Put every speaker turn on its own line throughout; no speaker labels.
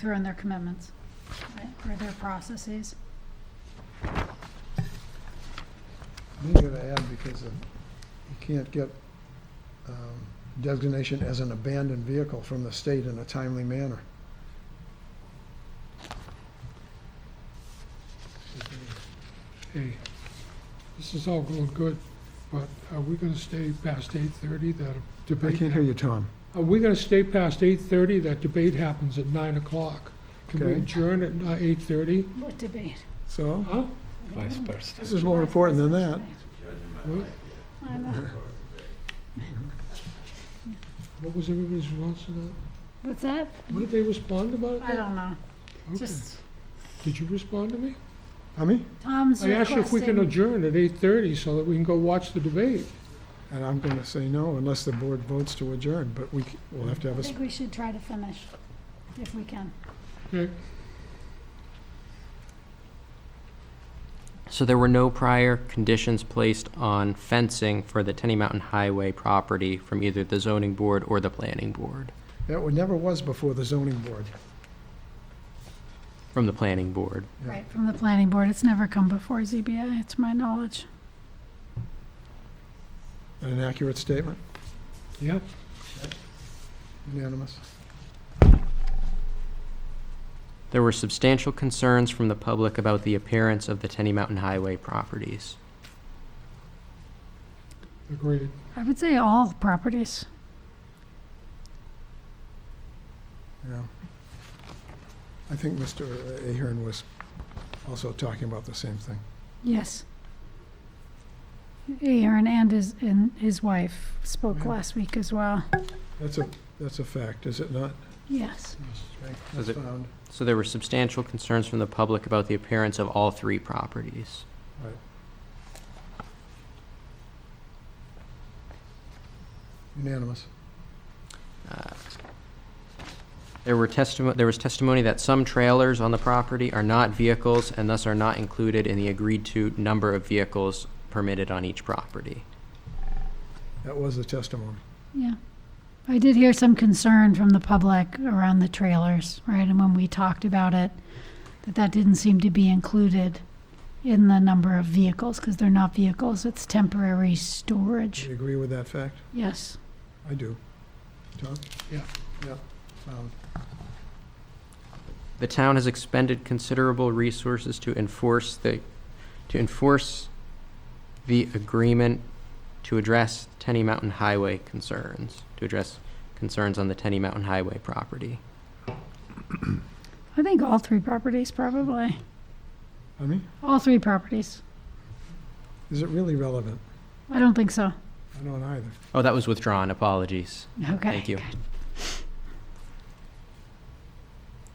through in their commitments, right, or their processes.
We gotta add, because of- you can't get um, designation as an abandoned vehicle from the state in a timely manner.
hey, this is all going good, but are we gonna stay past eight thirty, that
I
debate?
can't hear you, Tom.
Are we gonna stay past eight thirty, that debate happens at nine o'clock? Can we
Okay.
adjourn at uh, eight thirty?
What debate?
So,
Huh?
vice
Mm.
versa.
this is more important than that.
What
I know.
what was everybody's response to that?
What's that?
What did they respond about?
I
that?
don't know,
Okay.
just,
Did you respond to me?
I mean,
Tom's
I asked you
requesting.
if we can adjourn at eight thirty so that we can go watch the debate.
and I'm gonna say no unless the board votes to adjourn, but we, c- we'll have to have
I
a, s-
think we should try to finish, if we can.
Okay,
So there were no prior conditions placed on fencing for the Tenny Mountain Highway property from either the zoning board or the planning board?
that would- never was before the zoning board.
From the planning board.
Yeah.
Right, from the planning board, it's never come before ZBA, it's my knowledge.
An accurate statement,
yeah.
unanimous.
There were substantial concerns from the public about the appearance of the Tenny Mountain Highway properties.
Agreed.
I would say all properties.
Yeah. I think Mr. Ahern was also talking about the same thing.
Yes. Aaron and his, and his wife spoke
Yeah.
last week as well.
That's a, that's a fact, is it not?
Yes.
Okay,
Is
That's
it-
found.
So there were substantial concerns from the public about the appearance of all three properties.
Unanimous.
Uh, There were testimony, there was testimony that some trailers on the property are not vehicles and thus are not included in the agreed-to number of vehicles permitted on each property.
That was the testimony.
Yeah. I did hear some concern from the public around the trailers, right? And when we talked about it, that that didn't seem to be included in the number of vehicles, because they're not vehicles, it's temporary
Do
storage.
you agree with that fact?
Yes.
I do. Tom?
Yeah.
Yeah, found.
The town has expended considerable resources to enforce the, to enforce the agreement to address Tenny Mountain Highway concerns, to address concerns on the Tenny Mountain Highway property.
I think all three properties, probably.
I mean,
All three properties.
is it really relevant?
I don't think so.
I don't either.
Oh, that was withdrawn, apologies.
Okay.
Thank you.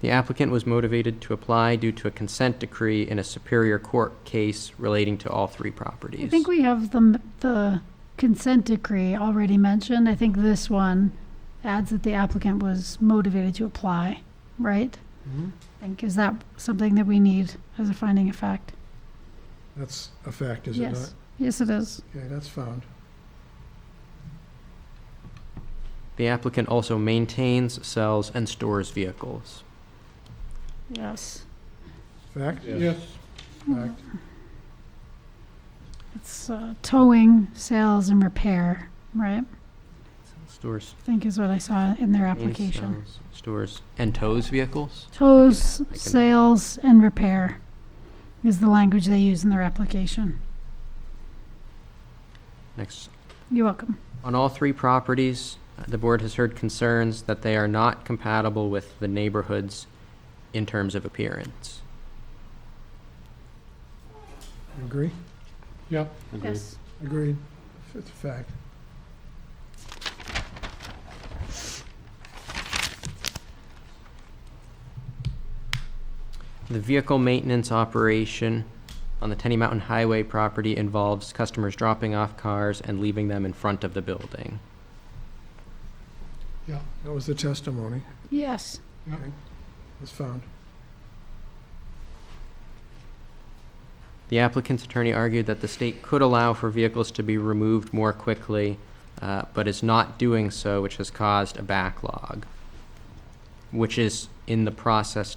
The applicant was motivated to apply due to a consent decree in a Superior Court case relating to all three properties.
I think we have the, m- the consent decree already mentioned. I think this one adds that the applicant was motivated to apply, right?
Mhm.
I think, is that something that we need as a finding of fact?
That's a fact, is it not?
Yes, yes it is.
Okay, that's found.
The applicant also maintains, sells, and stores vehicles.
Yes.
Fact?
Yes.
Fact.
It's uh, towing, sales, and repair, right?
Stores.
I think is what I saw in their
maintains,
application.
sells, Stores, and tows vehicles?
Tows, sales, and repair is the language they use in their application.
Next.
You're welcome.
On all three properties, uh, the board has heard concerns that they are not compatible with the neighborhoods in terms of appearance.
You agree?
Yep.
Yes.
Agreed. It's a fact.
The vehicle maintenance operation on the Tenny Mountain Highway property involves customers dropping off cars and leaving them in front of the building.
That was the testimony.
Yes.
That's found.
The applicant's attorney argued that the state could allow for vehicles to be removed more quickly, uh, but is not doing so, which has caused a backlog. which is in the process